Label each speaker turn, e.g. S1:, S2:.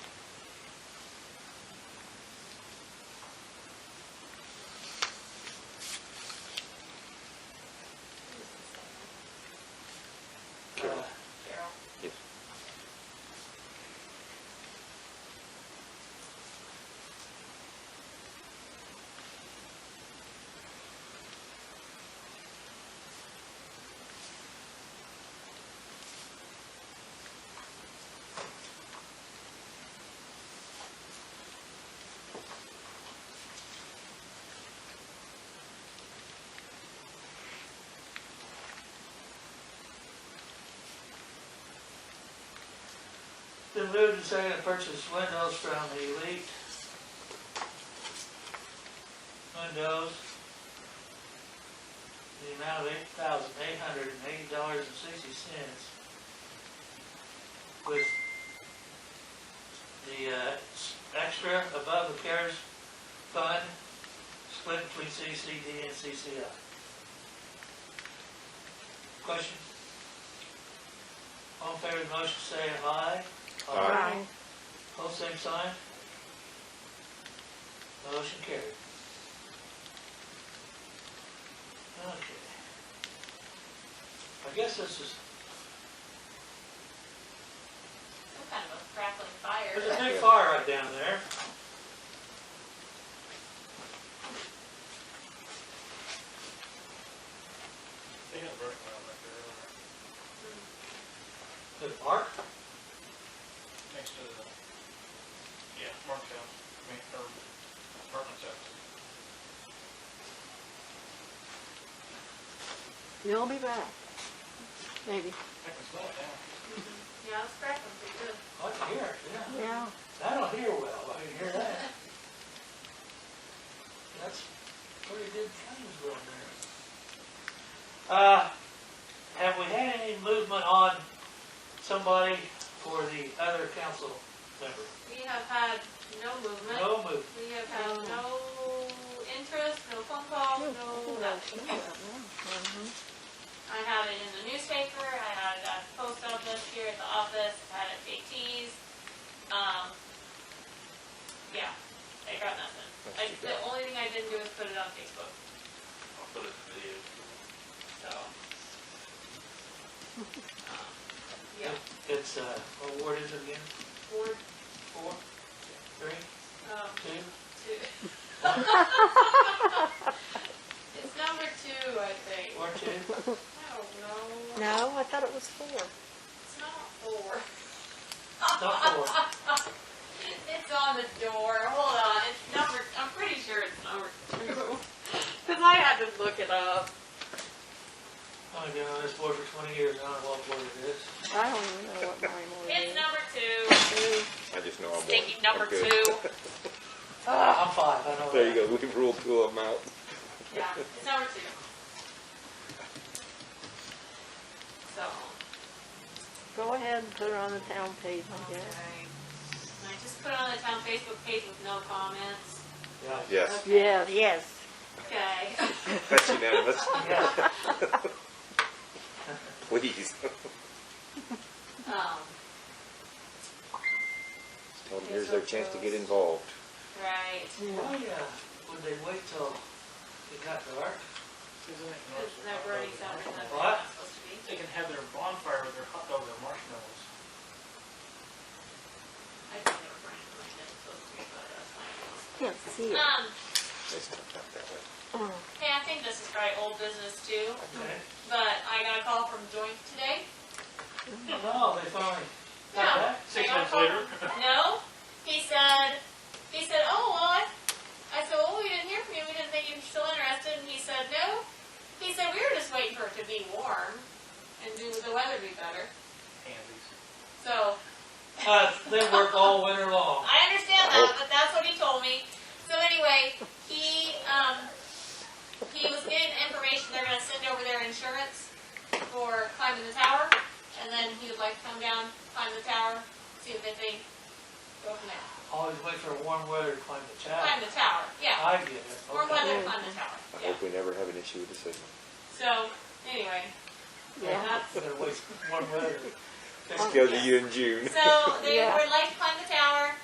S1: moved and seconded to purchase windows from Elite. Windows. The amount of eight thousand eight hundred and eighty dollars and sixty cents. With the, uh, s- extra above the CARES fund split between CCD and CCI. Question? All in favor of the motion, say aye.
S2: Aye.
S1: All same sign? Motion carried. Okay. I guess this is,
S3: Some kind of a crackling fire.
S1: there's a big fire right down there.
S4: They got burnt around back there earlier,
S1: The park?
S4: next to the, yeah, Mark's house, I mean, or apartment's house.
S2: You'll be back. Maybe,
S4: Heck, it's not down.
S3: Yeah, it's crackling pretty good.
S1: I can hear it, yeah.
S2: yeah.
S1: I don't hear well, I can hear that. That's pretty good times going there. Uh, have we had any movement on somebody for the other council member?
S3: We have had no movement.
S1: No movement.
S3: We have had no interest, no phone
S2: Oh,
S3: calls, no nothing.
S2: Mhm.
S3: I had it in the newspaper, I had it at the post office here at the office, I had it at JT's. Um, yeah, I got nothing. I, the only thing I didn't do is put it on Facebook,
S5: I'll put it in the video.
S3: so. um, Yeah,
S1: It's, uh, what ward is it again?
S3: board,
S1: Four? Three?
S3: um,
S1: Two?
S3: two. It's number two, I think.
S1: Ward two?
S3: I don't know.
S2: No, I thought it was four.
S3: It's not four.
S1: Not four. Oh,
S3: It's on the door. Hold on. It's number, I'm pretty sure it's number two. Because I had to look it up.
S1: I've only been on this board for twenty years, I don't know what board it is.
S2: I don't even know what mine
S3: It's
S2: was.
S3: number two.
S6: I just know I'm one.
S3: Stinky number
S6: I'm good.
S3: two.
S1: Ah, I'm five, I know that.
S6: There you go, we've ruled two of them out.
S3: Yeah, it's number two. So,
S2: Go ahead and put it on the town page, I
S3: okay.
S2: guess.
S3: And I just put it on the town Facebook page with no comments.
S1: Yeah.
S6: Yes,
S2: Yes, yes.
S3: Okay.
S6: that's unanimous.
S1: Yeah.
S6: Please.
S3: Um,
S6: Tell them here's their chance to get involved.
S3: right.
S1: Why, uh, would they wait till it got dark?
S4: Isn't it?
S3: Because they're already sounding that they're
S1: What?
S3: not supposed to be.
S4: They can have their bonfire with their hot dogs and marshmallows.
S3: I think they were burning like that, so it's pretty bad, that's fine.
S2: Can't see it.
S3: Um,
S6: It's not that way.
S2: Mm.
S3: hey, I think this is probably old business too,
S1: Okay.
S3: but I got a call from Joint today.
S1: No, they finally
S3: No.
S1: got back?
S4: Six
S3: I got a
S4: months
S3: call-
S4: later.
S3: No, he said, he said, oh, well, I, I said, well, we didn't hear from you, we didn't think you were still interested, and he said, no. He said, we were just waiting for it to be warm and do the weather be better,
S4: Handies.
S3: so.
S1: Uh, they work all winter long.
S3: I understand that, but that's what he told me. So anyway, he, um, he was getting information, they're gonna send over their insurance for climbing the tower, and then he would like to come down, climb the tower, see what they think, go from there.
S1: Always wait for warm weather to climb the
S3: Climb
S1: tower.
S3: the tower, yeah,
S1: I get it.
S3: warm
S1: Okay.
S3: weather, climb the tower,
S6: I
S3: yeah.
S6: hope we never have an issue with the signal.
S3: So, anyway,
S2: Yeah.
S3: that's,
S1: Better wait for warm weather.
S6: Let's go to you in June.
S3: so they
S2: Yeah.
S3: would like to climb the tower,